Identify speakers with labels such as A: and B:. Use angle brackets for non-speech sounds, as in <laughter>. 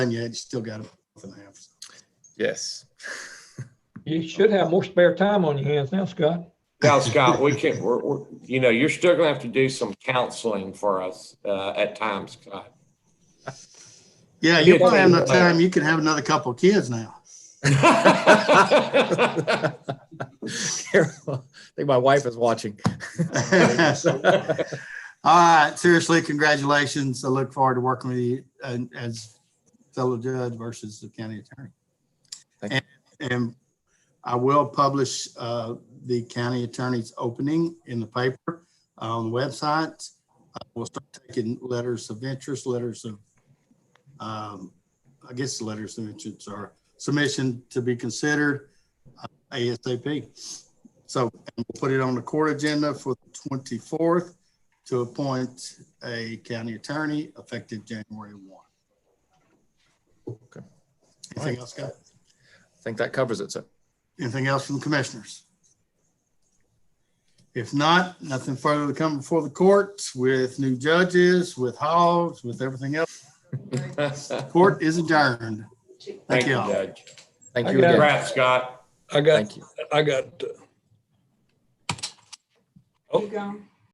A: done yet. You still got a month and a half.
B: <laughs> Yes.
C: You should have more spare time on your hands now, Scott.
D: Now, Scott, we can, we're, we're, you know, you're still gonna have to do some counseling for us, uh, at times, Scott.
A: Yeah, you probably have enough time. You can have another couple of kids now.
D: <laughs>
B: Carol, I think my wife is watching.
A: All right, seriously, congratulations. I look forward to working with you uh, as fellow judge versus the county attorney.
B: Thank
A: And, and I will publish uh, the county attorney's opening in the paper uh, on the website. Uh, We'll start taking letters of interest, letters of, um, I guess the letters of interest are submission to be considered uh, ASAP. So and we'll put it on the court agenda for the 24th to appoint a county attorney effective January 1.
B: Okay.
A: Anything else, Scott?
B: I think that covers it, sir.
A: Anything else from commissioners? If not, nothing further to come before the court with new judges, with hogs, with everything else. Court is adjourned.
D: Thank you,
A: all.
D: Judge.
B: Thank
C: I
B: you again.
C: got it.
D: Congrats, Scott.
C: I got,
B: Thank you.
C: I got, uh,
E: You gone?